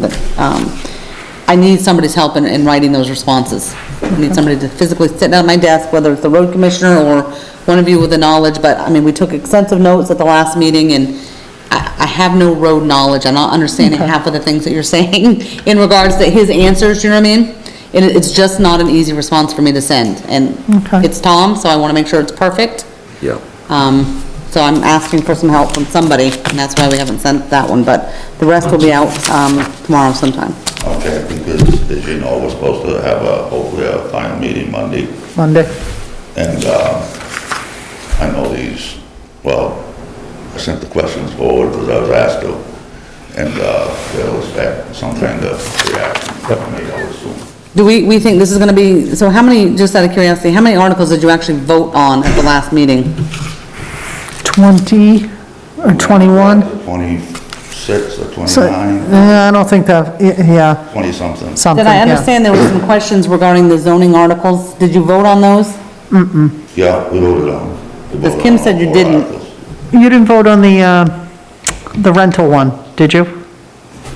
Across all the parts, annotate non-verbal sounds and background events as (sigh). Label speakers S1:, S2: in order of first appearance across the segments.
S1: but, um, I need somebody's help in, in writing those responses. I need somebody to physically sit down at my desk, whether it's the road commissioner or one of you with the knowledge, but, I mean, we took extensive notes at the last meeting, and I, I have no road knowledge, I'm not understanding half of the things that you're (laughs) saying in regards to his answers, you know what I mean? And it- it's just not an easy response for me to send, and
S2: Okay.
S1: it's Tom, so I wanna make sure it's perfect.
S3: Yeah.
S1: Um, so I'm asking for some help from somebody, and that's why we haven't sent that one, but the rest will be out, um, tomorrow sometime.
S4: Okay, because as you know, we're supposed to have a, hopefully a final meeting Monday.
S2: Monday.
S4: And, um, I know these, well, I sent the questions forward because I was asked to. And, uh, they'll expect some kind of reaction from me, I would assume.
S1: Do we, we think this is gonna be, so how many, just out of curiosity, how many articles did you actually vote on at the last meeting?
S2: 20 or 21?
S4: Twenty-six or
S2: So,
S4: twenty-nine,
S2: yeah, I don't think that, yeah,
S4: twenty-something.
S2: something,
S1: Did I
S2: Um, yeah.
S1: understand there were some questions regarding the zoning articles? Did you vote on those?
S4: Yeah, we voted on. we
S1: Because
S4: voted
S1: Kim
S4: on all
S1: said you
S4: four
S1: didn't.
S4: articles.
S2: You didn't vote on the, uh, the rental one, did you?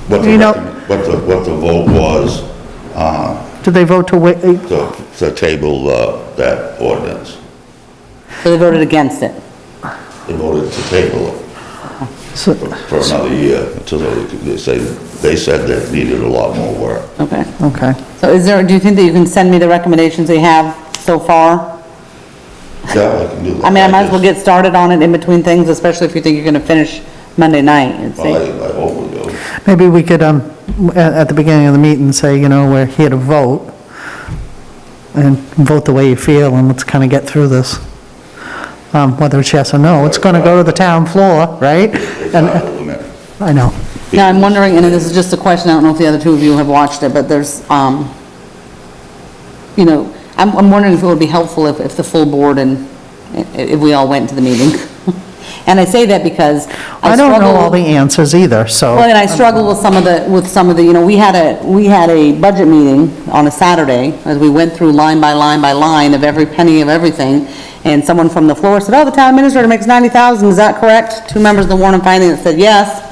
S4: What the,
S2: You know-
S4: recommend- what the, what the vote was, uh,
S2: Did they vote to wait, eh,
S4: to, to table, uh, that ordinance.
S1: So they voted against it?
S4: They voted to table it.
S2: so,
S4: for another year until they, they say, they said that it needed a lot more work.
S1: Okay.
S2: okay.
S1: So is there, do you think that you can send me the recommendations they have so far?
S4: Yeah, I can do that.
S1: I mean, I might as well get started on it in between things, especially if you think you're gonna finish Monday night and see.
S4: Well, I, I hope we do.
S2: Maybe we could, um, at, at the beginning of the meeting, say, you know, we're here to vote, and vote the way you feel, and let's kind of get through this. Um, whether it's yes or no, it's gonna go to the town floor, right?
S4: It's
S2: And-
S1: uh,
S4: not a limit.
S2: I know,
S1: Now, I'm wondering, and this is just a question, I don't know if the other two of you have watched it, but there's, um, you know, I'm, I'm wondering if it would be helpful if, if the full board and, i- if we all went to the meeting. (laughs) And I say that because I
S2: I don't know all
S1: struggle,
S2: the answers either,
S1: well,
S2: so,
S1: and I struggle with some of the, with some of the, you know, we had a, we had a budget meeting on a Saturday, as we went through line by line by line of every penny of everything, and someone from the floor said, oh, the town administrator makes ninety thousand, is that correct? Two members of the Warren and Finance said, yes.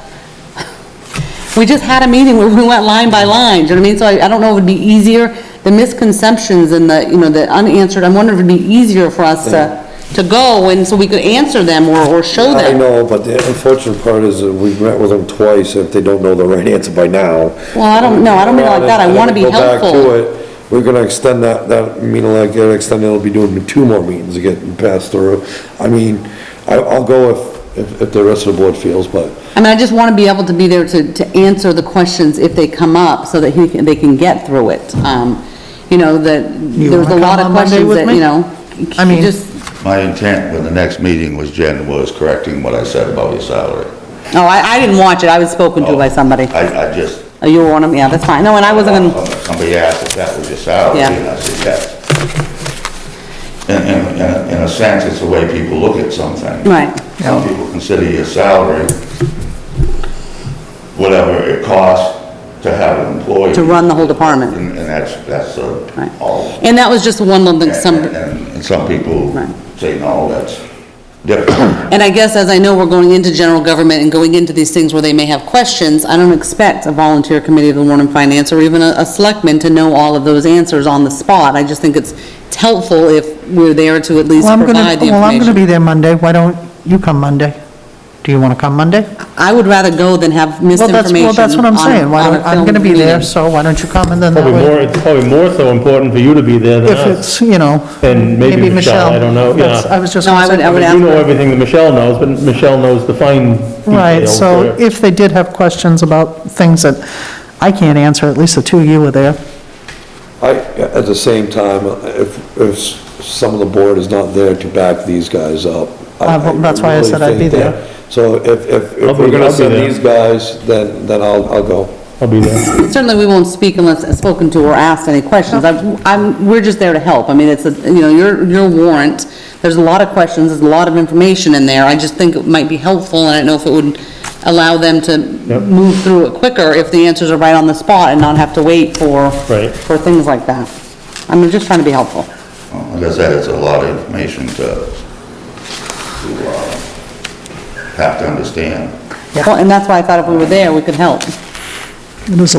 S1: (laughs) We just had a meeting where we went line by line, do you know what I mean? So I, I don't know if it'd be easier, the misconceptions and the, you know, the unanswered, I'm wondering if it'd be easier for us to, to go and so we could answer them or, or show
S3: I
S1: them.
S3: know, but the unfortunate part is that we've met with them twice, if they don't know the right answer by now.
S1: Well, I don't- no, I don't mean like that. I
S3: And if
S1: wanna be
S3: we go back
S1: helpful.
S3: to it, We're gonna extend that, that meeting, like, gonna extend, it'll be doing two more meetings to get passed through. I mean, I, I'll go if, if, if the rest of the board feels, but
S1: I mean, I just want to be able to be there to, to answer the questions if they come up, so that he, can- they can get through it. Um, you know, that,
S2: You
S1: there's a
S2: wanna
S1: lot of
S2: come on Monday
S1: questions
S2: with
S1: that,
S2: me?
S1: you know.
S2: I mean-
S1: just-
S4: My intent when the next meeting was Jen was correcting what I said about your salary.
S1: No, oh, I, I didn't watch it, I was spoken to by somebody.
S4: Oh, I, I just.
S1: Oh, you were one of them, yeah, that's fine, no, and I wasn't gonna.
S4: Somebody asked if that was your salary,
S1: Yeah.
S4: and I said, yes. In, in, in a- in a sense, it's the way people look at something.
S1: Right.
S4: Some people consider your salary whatever it costs to have an employee.
S1: To run the whole department.
S4: And and that's, that's
S1: Right.
S4: uh, all.
S1: And that was just one little thing, some,
S4: And- And and some people
S1: Right.
S4: say, no, that's different.
S1: and I guess as I know we're going into general government and going into these things where they may have questions, I don't expect a volunteer committee of the Warren and Finance or even a, a selectman to know all of those answers on the spot. I just think it's it's helpful if we're there to at least
S2: well, I'm
S1: provide the
S2: gonna, well, I'm gonna
S1: information.
S2: be there Monday, why don't you come Monday? Do you wanna come Monday?
S1: I would rather go than have
S2: Well, that's,
S1: misinformation
S2: well, that's what I'm
S1: on-
S2: saying, why
S1: on a
S2: don't, I'm
S1: filmed
S2: gonna be there,
S1: meeting.
S2: so why don't you come and then that
S5: Probably
S2: way-
S5: more, it's probably more so important for you to be there than
S2: If
S5: us.
S2: it's, you know,
S5: And maybe
S2: maybe
S5: Michelle,
S2: Michelle.
S5: I don't know,
S2: That's-
S5: yeah.
S2: I was just
S1: No,
S2: gonna
S1: I would,
S2: say,
S1: I would
S5: You
S1: ask,
S5: know
S1: them.
S5: everything that Michelle knows, but Michelle knows the fine details.
S2: right, so
S5: there.
S2: if they did have questions about things that I can't answer, at least the two of you were there.
S3: I, at the same time, if, if some of the board is not there to back these guys up.
S2: Uh, well, that's why I
S3: really
S2: said I'd be
S3: think that-
S2: there.
S3: So if, if,
S5: I'll
S3: if
S5: be-
S3: we're
S5: I'll
S3: gonna
S5: be
S3: send
S5: there.
S3: these guys, then, then I'll, I'll go.
S5: I'll be there.
S1: certainly we won't speak unless spoken to or asked any questions. I'm- I'm, we're just there to help. I mean, it's, a you know, your, your warrant, there's a lot of questions, there's a lot of information in there. I just think it might be helpful, and I don't know if it would allow them to
S5: Yep.
S1: move through it quicker if the answers are right on the spot and not have to wait for,
S5: Right.
S1: for things like that. I'm just trying to be helpful.
S4: Well, Like I said, it's a lot of information to, to, uh, have to understand.
S1: Well, And that's why I thought if we were there, we could help.
S2: It was a